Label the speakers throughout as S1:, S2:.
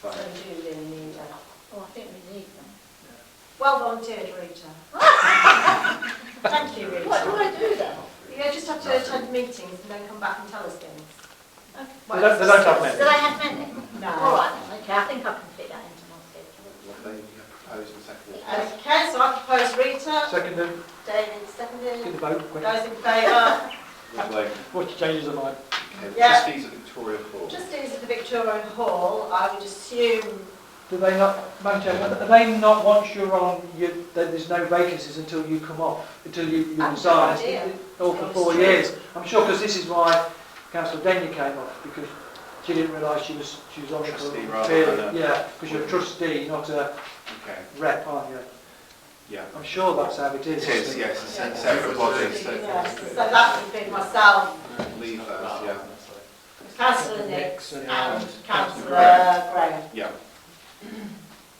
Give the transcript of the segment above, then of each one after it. S1: So
S2: Right.
S1: do really need that.
S3: Oh, I think we need them.
S1: Well volunteered, Rita. Thank you,
S3: What do
S1: Rita.
S3: I do then?
S1: You just have to attend meetings and then come back and tell us things.
S3: Okay.
S2: They don't, they don't have
S3: Did I
S2: many.
S3: have many? All
S1: No.
S3: right, then, okay, I think I can fit that into my schedule.
S2: What they propose and second.
S1: Okay, so I propose Rita.
S2: Seconded,
S1: David
S2: get
S1: seconded.
S2: the vote, quick.
S1: Those in favour?
S4: Lovely.
S2: What's the changes of mind?
S4: Okay,
S1: Yeah.
S4: Trustees of Victoria Hall.
S1: Trustees of the Victorian Hall, I would assume,
S5: Do they not, Madam Chair, are they not, once you're on, you, that there's no vacancies until you come off, until you, you
S1: I've
S5: resign?
S1: no idea.
S5: Or for four years? I'm sure, because this is why Councillor Denny came off, because she didn't realise she was, she was on it. for a
S4: Trustee rather
S5: period.
S4: than a-
S5: Yeah, because you're a trustee, not a
S4: Okay,
S5: rep, aren't you?
S4: yeah.
S5: I'm sure that's how it
S4: It
S5: is.
S4: is, yeah, it's a se- separate body.
S1: yes, uh, so that would be myself,
S4: Leave those, yeah,
S1: councillor Nick
S5: Nixon.
S1: and councillor
S4: Graham.
S1: Graham.
S4: yeah.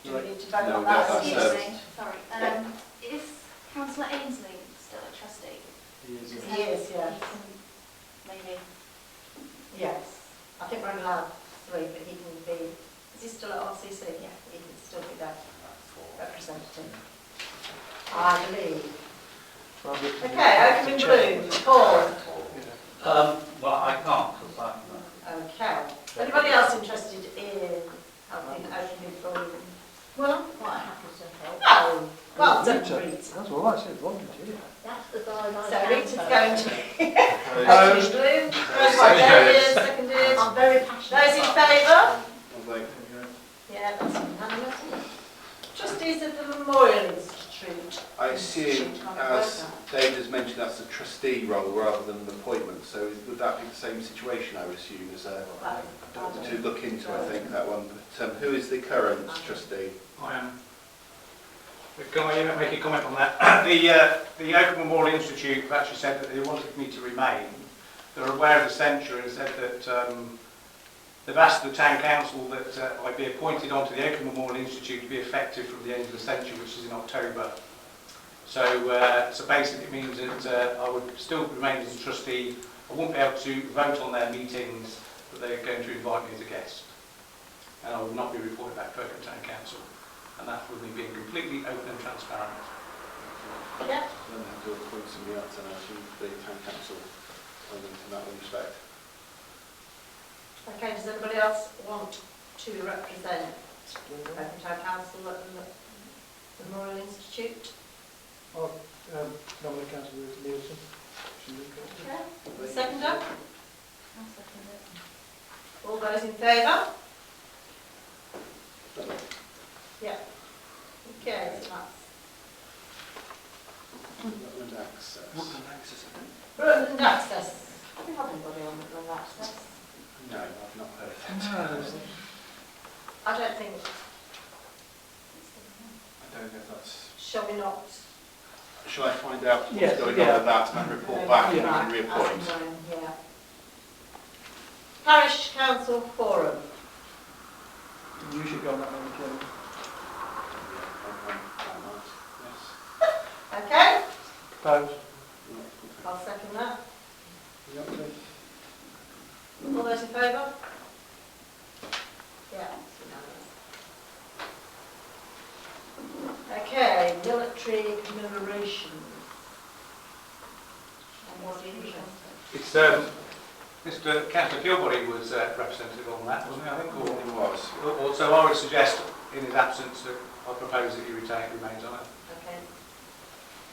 S1: Do we need to vote
S4: No,
S1: on that?
S4: that- that's,
S6: Excuse
S4: uh,
S6: me, sorry. Um, Is councillor Ainsley still a trustee?
S5: Yes.
S6: Because
S1: He is, yeah.
S6: he can Maybe.
S1: Yes, I think we're allowed three, but he can be, is he still at RCC? Yeah, he can still be that representative. I believe. Okay, open in blue, Paul.
S7: Um, well, I can't, because I'm,
S1: Okay. Anybody else interested in helping open in blue?
S3: Well, I'm quite happy to help.
S1: No, well done,
S5: Rita.
S1: Rita.
S5: That's all I said, volunteer.
S3: That's the guy
S1: So
S3: I can
S1: Rita's
S3: vote.
S1: going to.
S4: Those-
S1: Open in blue, first by
S4: Sorry,
S1: David,
S4: David.
S1: seconded.
S3: I'm very passionate.
S1: Those in favour?
S4: Lovely.
S1: Yeah, that's unanimous. Trustees of the Memorial Institute.
S4: I assume, as David has mentioned, that's a trustee role rather than an appointment, so is- would that be the same situation, I would assume, as a,
S1: Right.
S4: to look into, I think, that one. But um, who is the current trustee?
S8: I am. Can I make a comment on that? The, uh, the Open Memorial Institute have actually said that they wanted me to remain. They're aware of the censure and said that um, they've asked the town council that uh, I be appointed onto the Open Memorial Institute to be effective from the end of the censure, which is in October. So, uh, so basically it means that uh, I would still remain as a trustee. I won't be able to vote on their meetings, but they're going to invite me as a guest. And I will not be reported back to Oakham Town Council and that's with me being completely open and transparent.
S1: Yeah.
S4: I don't have to appoint somebody else, and I assume the town council, um, in that respect.
S1: Okay, does anybody else want to represent Oakham Town Council at the Memorial Institute?
S5: Oh, um, nominee councillor Nielsen. Should we go?
S1: Okay. Seconder?
S6: I'll second it.
S1: All those in favour? Yeah. Okay, so that's.
S4: Rutland Access.
S1: Rutland Access. Do we have anybody on Rutland Access?
S4: No, I've not heard of that.
S1: I don't think,
S4: I don't know if that's...
S1: shall we not?
S4: Shall I find out what's
S5: Yes,
S4: going
S5: yeah.
S4: on with that and report back and we can
S1: Right, as
S4: reappoint?
S1: and when, Yeah. Parish Council Forum.
S5: You should go on that, Madam Chair.
S4: Yeah, I'm- I'm- I'm out. Yes.
S1: Okay,
S5: Proposed.
S1: I'll second that.
S4: Yeah, okay.
S1: All those in favour? Yeah, it's unanimous. Okay, military commemoration. And what do you think?
S8: It's, um, Mr. Councillor Kilbody was uh, representative on that, wasn't he, I think,
S4: It was.
S8: or, or, so I would suggest in his absence that I propose that he retain, remains on it,
S1: Okay.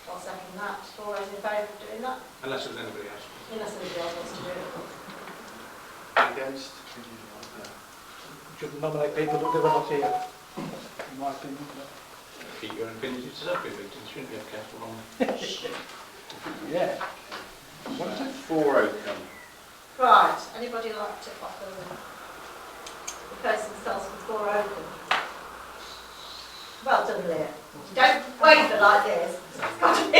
S1: I'll second that. All those in favour of doing that?
S8: unless there's anybody else.
S1: Unless anybody else wants to do it.
S4: Against?
S5: Should nominate people that they were not here, in my opinion.
S8: Keep your opinions to separate meetings, shouldn't you, Councillor Longley?
S5: Yeah.
S4: No. Four Oakham.
S1: Right, anybody like to offer them? Propose themselves before open? Well done, Leah. Don't waver like this. It's got to be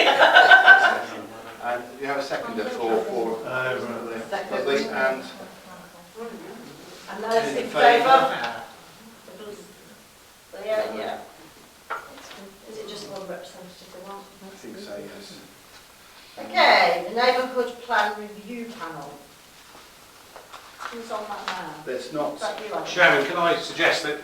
S4: And do you have a second for four?
S1: Second.
S4: Lovely, and
S1: And those in
S4: In
S1: favour?
S4: favour?
S1: So, yeah, yeah. Is it just one representative they want?
S4: I think so, yes.
S1: Okay, the neighbourhood plan review panel. Who's on that now?
S4: There's
S1: Is
S4: not,
S1: that you, Ange?
S8: Chairman, can I suggest that